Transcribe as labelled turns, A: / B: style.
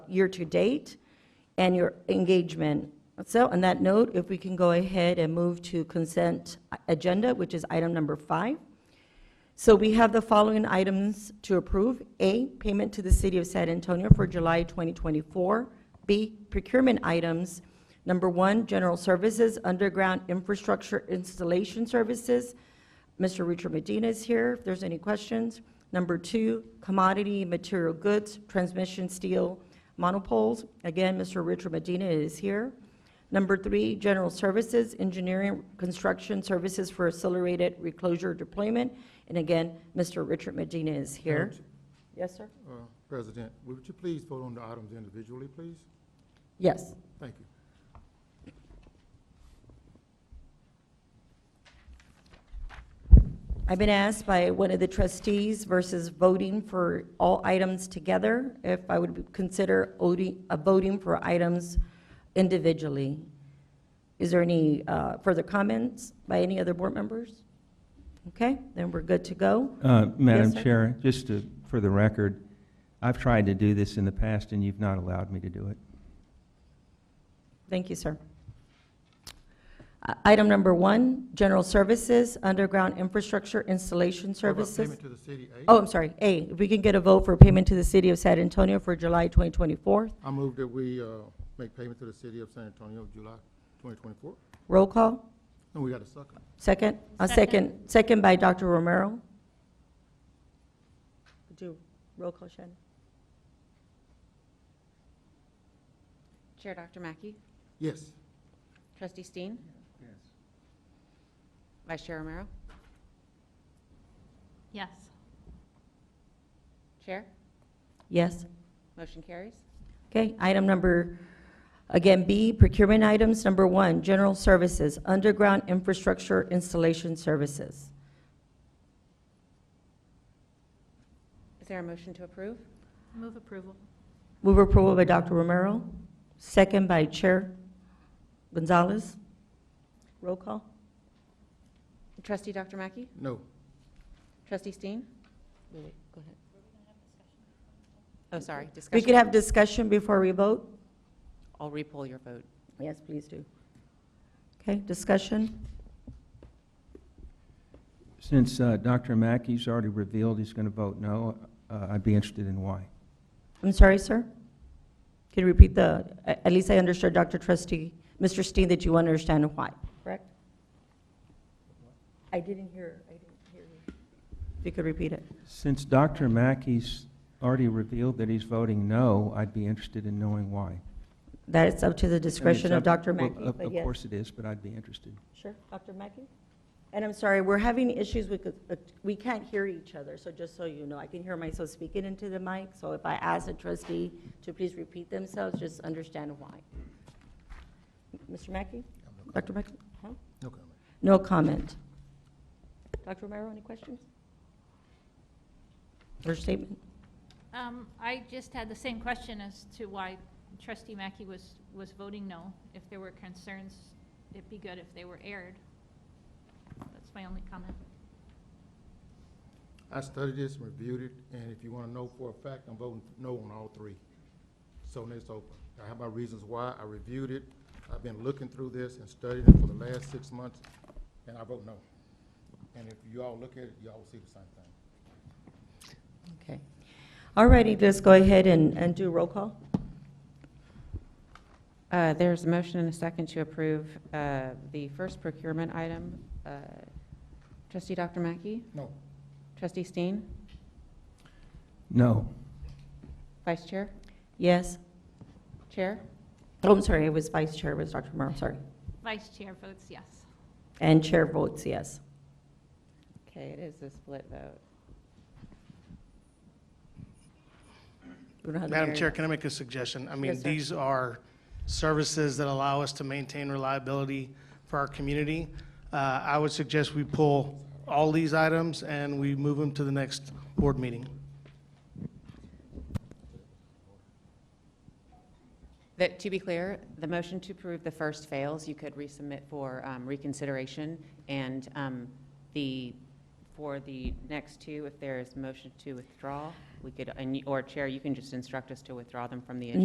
A: year-to-date and your engagement. So on that note, if we can go ahead and move to consent agenda, which is item number five. So we have the following items to approve. A, payment to the City of San Antonio for July 2024. B, procurement items. Number one, general services, underground infrastructure installation services. Mr. Richard Medina is here, if there's any questions. Number two, commodity material goods, transmission steel monopoles. Again, Mr. Richard Medina is here. Number three, general services, engineering, construction services for accelerated reclosure deployment. And again, Mr. Richard Medina is here. Yes, sir?
B: Uh, President, would you please vote on the items individually, please?
A: Yes.
B: Thank you.
A: I've been asked by one of the trustees versus voting for all items together, if I would consider odi- uh, voting for items individually. Is there any uh, further comments by any other board members? Okay, then we're good to go.
C: Uh, Madam
A: sir.
C: Chair, just to, for the record, I've tried to do this in the past, and you've not allowed me to do it.
A: Thank you, sir. I- Item number one, general services, underground infrastructure installation
B: What about
A: services.
B: Payment to the city aid.
A: Oh, I'm sorry, A, if we can get a vote for payment to the city of San Antonio for July 2024.
B: I move that we, uh, make payment to the city of San Antonio, July twenty twenty-four.
A: Roll call,
B: And we got a second.
A: second? A second, second by Dr. Romero. Could you roll call, Shannon?
D: Chair Dr. Mackey,
B: Yes,
D: Trustee Steen, Vice Chair Romero,
E: Yes.
D: Chair,
A: Yes?
D: motion carries.
A: Okay, item number, again, B, procurement items. Number one, general services, underground infrastructure installation services.
D: Is there a motion to approve?
E: Move approval.
A: Move approval by Dr. Romero, second by Chair Gonzalez. Roll call?
D: Trustee Dr. Mackey,
B: no,
D: Trustee Steen? Wait, wait, go ahead. Oh, sorry,
A: We could
D: discussion.
A: have discussion before we vote?
D: I'll repoll your vote.
A: Yes, please do. Okay, discussion?
C: Since uh, Dr. Mackey's already revealed he's going to vote no, uh, I'd be interested in why.
A: I'm sorry, sir? Can you repeat the, a- at least I understood, Dr. Trustee, Mr. Steen, that you understand why, correct? I didn't hear, I didn't hear you. If you could repeat it.
C: Since Dr. Mackey's already revealed that he's voting no, I'd be interested in knowing why. I mean,
A: That is up to the discretion
C: it's
A: of
C: up-
A: Dr.
C: well,
A: Mackey,
C: of-
A: but
C: Of
A: yes.
C: course it is, but I'd be interested.
A: Sure, Dr. Mackey? And I'm sorry, we're having issues with, the- we can't hear each other, so just so you know, I can hear myself speaking into the mic, so if I ask a trustee to please repeat themselves, just understand why. Mr. Mackey? Dr. Mackey? Huh?
B: no comment.
A: No comment. Dr. Romero, any questions? Or statement?
E: Um, I just had the same question as to why trustee Mackey was, was voting no. If there were concerns, it'd be good if they were aired. That's my only comment.
B: I studied this and reviewed it, and if you wanna know for a fact, I'm voting no on all three. So now it's open. I have my reasons why. I reviewed it. I've been looking through this and studying it for the last six months, and I vote no. And if you all look at it, y'all will see the same thing.
A: Okay. All righty, let's go ahead and, and do roll call.
D: Uh, There's a motion and a second to approve uh, the first procurement item. Uh, Trustee Dr. Mackey,
B: No,
D: Trustee Steen,
C: No.
D: Vice Chair,
A: Yes?
D: Chair,
A: Oh, I'm sorry, it was vice chair, it was Dr. Romero, sorry.
E: Vice chair votes yes.
A: And chair votes yes.
D: Okay, it is a split vote.
A: We don't have to
F: Madam
A: carry
F: Chair,
A: that.
F: can I make a suggestion? I mean,
A: Yes, sir.
F: these are services that allow us to maintain reliability for our community. Uh, I would suggest we pull all these items and we move them to the next board meeting.
D: That, to be clear, the motion to approve the first fails, you could resubmit for um, reconsideration, and um, the, for the next two, if there is motion to withdraw, we could, and you- or Chair, you can just instruct us to withdraw them from the agenda.